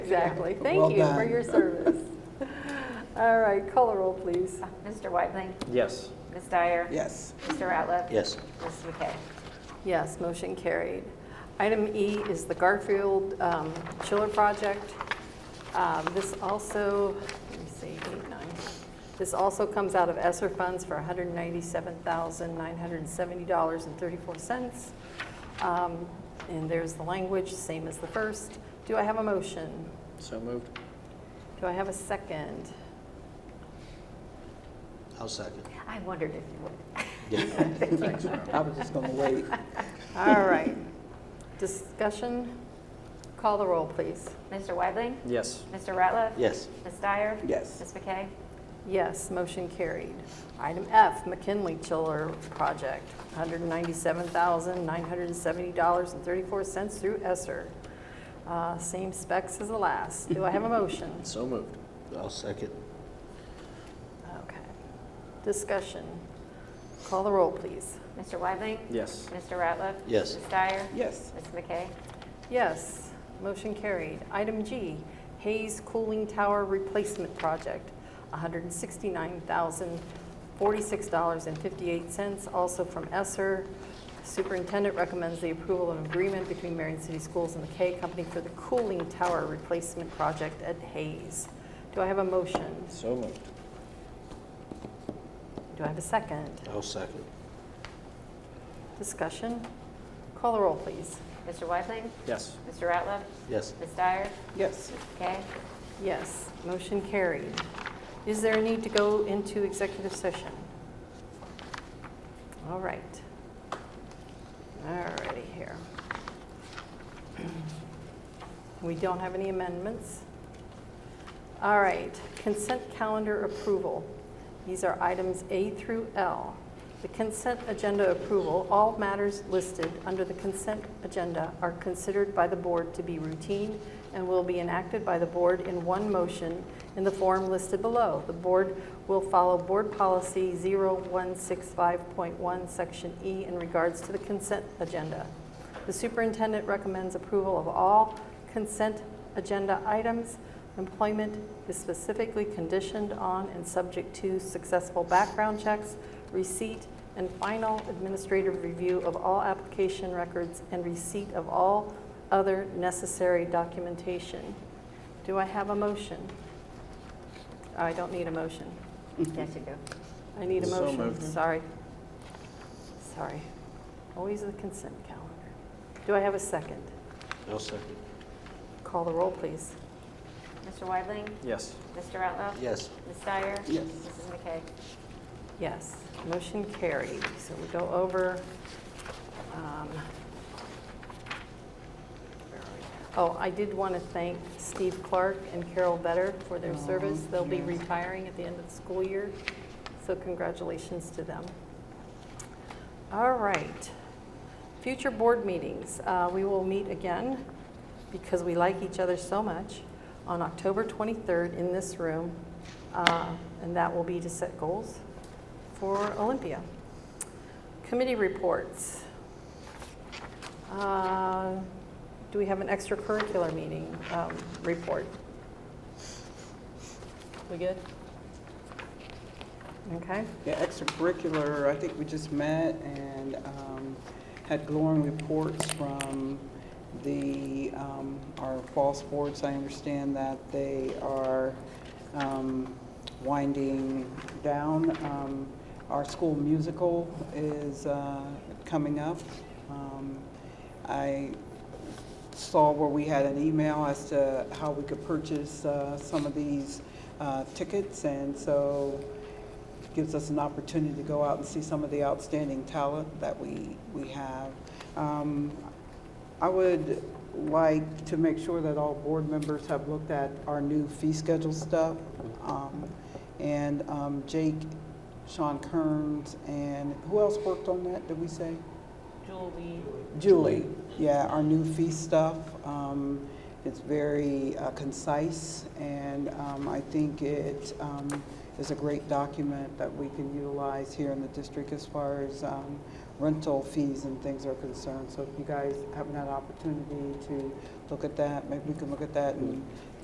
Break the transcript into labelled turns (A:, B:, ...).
A: Exactly.
B: Well
A: Thank you for
B: done.
A: your service. All right, color roll, please.
C: Mr. Weidling,
D: Yes.
C: Ms. Dyer.
B: Yes.
C: Mr. Ratliff.
E: Yes.
C: Ms. McKay.
A: Yes, motion carried. Item E is the Garfield um, Chiller Project. Um, This also, let me see, eight, nine. This also comes out of ESSER funds for $197,970.34. Um, And there's the language, same as the first. Do I have a motion?
D: So moved.
A: Do I have a second?
E: I'll second.
C: I wondered if you would.
E: Yeah.
B: I was just gonna wait.
A: All right. Discussion? Call the roll, please.
C: Mr. Weidling,
D: Yes.
C: Mr. Ratliff.
E: Yes.
C: Ms. Dyer.
B: Yes.
C: Ms. McKay.
A: Yes, motion carried. Item F, McKinley Chiller Project, $197,970.34 through ESSER. Uh, Same specs as the last. Do I have a motion?
D: So moved.
E: I'll second.
A: Okay. Discussion. Call the roll, please.
C: Mr. Weidling.
D: Yes.
C: Mr. Ratliff.
E: Yes.
C: Ms. Dyer.
B: Yes.
C: Ms. McKay.
A: Yes, motion carried. Item G, Hayes Cooling Tower Replacement Project, $169,046.58, also from Esser. Superintendent recommends the approval of an agreement between Marion City Schools and the K Company for the cooling tower replacement project at Hayes. Do I have a motion?
D: So moved.
A: Do I have a second?
E: I'll second.
A: Discussion? Call the roll, please.
C: Mr. Weidling,
D: Yes.
C: Mr. Ratliff.
E: Yes.
C: Ms. Dyer.
B: Yes.
C: Ms. McKay.
A: Yes, motion carried. Is there a need to go into executive session? All right. All righty here. We don't have any amendments. All right, consent calendar approval. These are items A through L. The consent agenda approval, all matters listed under the consent agenda are considered by the board to be routine and will be enacted by the board in one motion in the form listed below. The board will follow Board Policy 0165.1, Section E, in regards to the consent agenda. The superintendent recommends approval of all consent agenda items. Employment is specifically conditioned on and subject to successful background checks, receipt, and final administrative review of all application records and receipt of all other necessary documentation. Do I have a motion? I don't need a motion.
B: Mm-hmm.
C: Yes, you do.
A: I need a
D: So
A: motion,
D: moved.
A: sorry. Sorry. Always the consent calendar. Do I have a second?
E: I'll second.
A: Call the roll, please.
C: Mr. Weidling,
D: Yes.
C: Mr. Ratliff.
E: Yes.
C: Ms. Dyer.
B: Yes.
C: Mrs. McKay.
A: Yes, motion carried. So we go over, um, where are we? oh, I did want to thank Steve Clark and Carol Better for their service. They'll be retiring at the end of the school year, so congratulations to them. All right. Future board meetings, Uh, we will meet again, because we like each other so much, on October 23rd in this room, Uh, and that will be to set goals for Olympia. Committee reports. Uh, Do we have an extracurricular meeting um, report? We good? Okay.
B: Yeah, extracurricular, I think we just met and um, had glowing reports from the, um, our fall sports. I understand that they are um, winding down. Um, Our school musical is uh, coming up. Um, I saw where we had an email as to how we could purchase uh, some of these uh, tickets, and so gives us an opportunity to go out and see some of the outstanding talent that we, we have. Um, I would like to make sure that all board members have looked at our new fee schedule stuff. Um, And um, Jake, Sean Kearns, and who else worked on that, did we say? Julie, yeah, our new fee stuff. Um, it's very uh, concise, and um, I think it um, is a great document that we can utilize here in the district as far as um, rental fees and things are concerned. So if you guys haven't had an opportunity to look at that, maybe we can look at that and